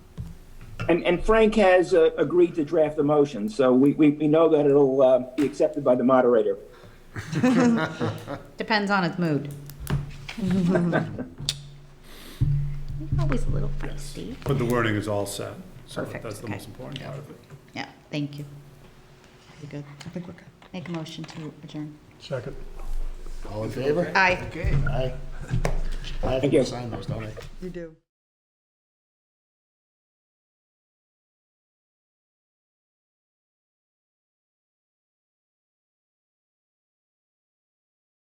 And, and Frank has uh, agreed to draft the motion, so we, we, we know that it'll uh, be accepted by the moderator. Depends on its mood. Always a little feisty. But the wording is all set, so Perfect, that's the okay. most important part of it. Yeah, thank you. We good? I think we're good. Make a motion to adjourn. Second. All in favor? Aye. Okay. Aye. I have Thank you. to sign those, don't I? You do.